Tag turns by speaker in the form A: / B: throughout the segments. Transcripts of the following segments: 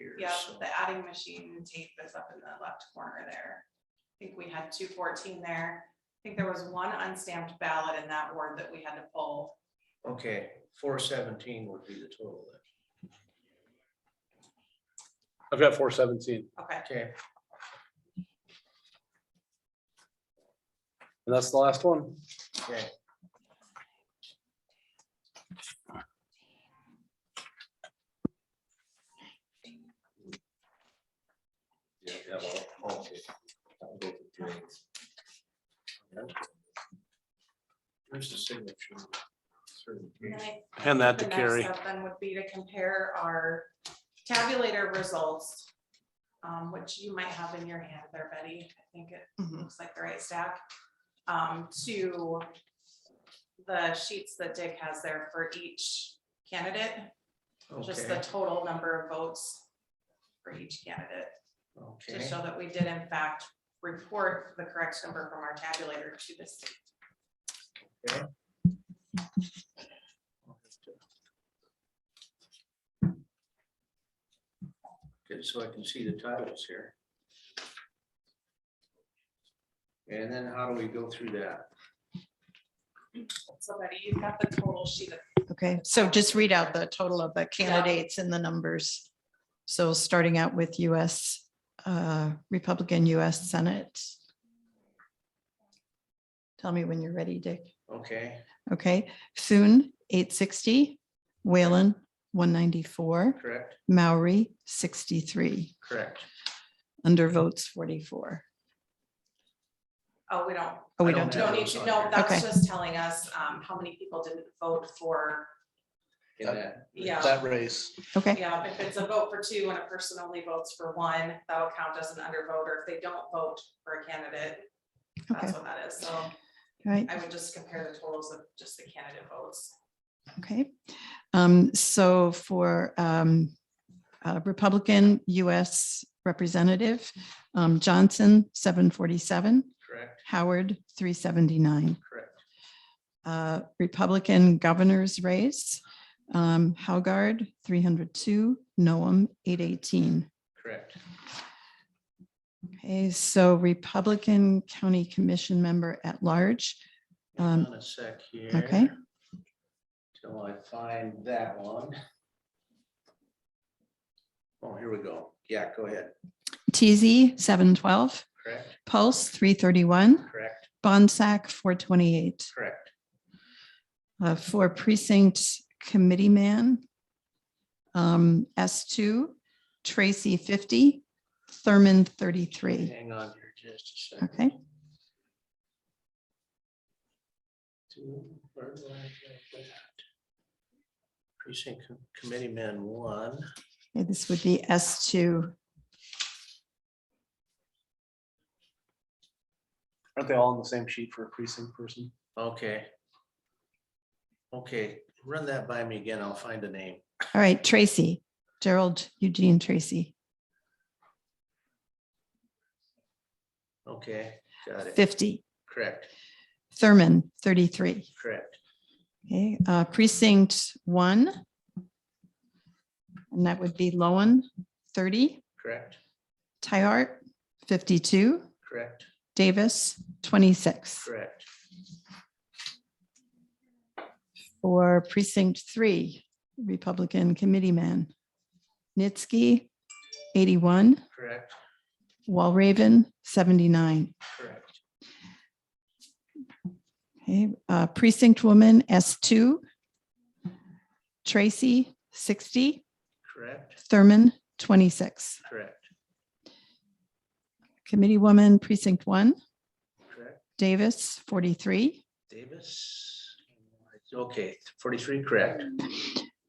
A: years.
B: Yeah,
A: so-
B: the adding machine tape is up in the left corner there. I think we had two fourteen there. I think there was one unstamped ballot in that ward that we had to pull.
A: Okay, four seventeen would be the total then.
C: I've got four seventeen,
B: Okay,
A: Okay,
C: and that's the last one.
A: okay.
D: Yeah, yeah, well, okay. I'll go with drains.
A: There's the signature.
B: and then I
C: Hand that to
B: The next
C: Carrie.
B: step Then would be to compare our tabulator results, um, which you might have in your hand there, Betty. I think it
C: Mm-hmm.
E: Mhm.
B: looks like the right stack. um, to the sheets that Dick has there for each candidate, just the
A: Okay,
B: total number of votes for each candidate, to
A: okay,
B: show that we did in fact report the correct number from our tabulator to the state.
A: good, so I can see the titles here. And then how do we go through that?
B: So Betty, you've got the total sheet of
E: Okay, so just read out the total of the candidates and the numbers. So starting out with US uh, Republican, US Senate. Tell me when you're ready, Dick.
A: Okay,
E: Okay, Thune, eight sixty, Whalen, one ninety-four,
A: correct,
E: Maori, sixty-three,
A: correct.
E: undervotes, forty-four.
B: Oh, we don't,
E: Oh, we
A: I don't
E: don't,
A: have
B: No need
A: those
B: to,
A: on
B: no,
A: here.
B: that's
E: Okay.
B: just telling us um how many people didn't vote for,
A: In that.
B: Yeah.
C: That race.
E: okay,
B: yeah, if it's a vote for two and a person only votes for one, that'll count as an undervote, or if they don't vote for a candidate.
E: okay,
B: That's what that is, so
E: all right.
B: I would just compare the totals of just the candidate votes.
E: Okay, um, so for, um, uh, Republican US Representative, um, Johnson, seven forty-seven,
A: Correct,
E: Howard, three seventy-nine.
A: correct,
E: Uh, Republican Governor's Race, um, Haugard, three hundred two, Noam, eight eighteen.
A: correct,
E: Okay, so Republican County Commission Member at Large,
A: hang
E: Um,
A: on a sec here.
E: okay.
A: Till I find that one. Oh, here we go, yeah, go ahead,
E: TZ, seven twelve,
A: correct,
E: Pulse, three thirty-one,
A: correct,
E: Bonsack, four twenty-eight.
A: correct,
E: uh, for precinct committee man. Um, S two, Tracy fifty, Thurman thirty-three.
A: hang on here just a second.
E: Okay,
A: Two, where do I have that? Precinct co- committee man one,
E: yeah, this would be S two.
C: Aren't they all on the same sheet for a precinct person?
A: okay. Okay, run that by me again, I'll find the name.
E: All right, Tracy, Gerald Eugene Tracy,
A: Okay, got it,
E: fifty,
A: correct,
E: Thurman thirty-three.
A: correct,
E: Okay, uh, precinct one. And that would be Lowen thirty,
A: correct,
E: Tyart fifty-two,
A: correct,
E: Davis twenty-six.
A: correct,
E: for precinct three, Republican committeeman. Nitsky, eighty-one,
A: correct,
E: Walraven, seventy-nine.
A: correct,
E: Okay, uh, precinct woman, S two. Tracy, sixty,
A: correct,
E: Thurman, twenty-six.
A: correct,
E: Committee woman, precinct one,
A: correct.
E: Davis, forty-three,
A: Davis. Okay, forty-three, correct,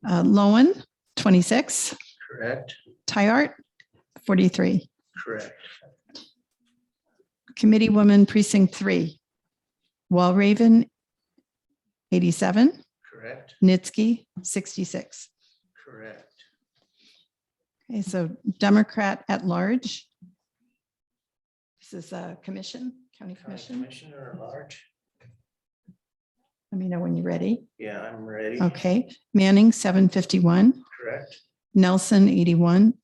E: uh, Lowen, twenty-six,
A: correct,
E: Tyart, forty-three.
A: correct,
E: Committee woman, precinct three, Walraven, eighty-seven.
A: correct,
E: Nitsky, 66.
A: correct,
E: Okay, so Democrat at large. This is a commission, county
A: county
E: commission.
A: commissioner at large.
E: Let me know when you're ready.
A: Yeah, I'm ready.
E: Okay, Manning, 751,
A: Correct.
E: Nelson, 81,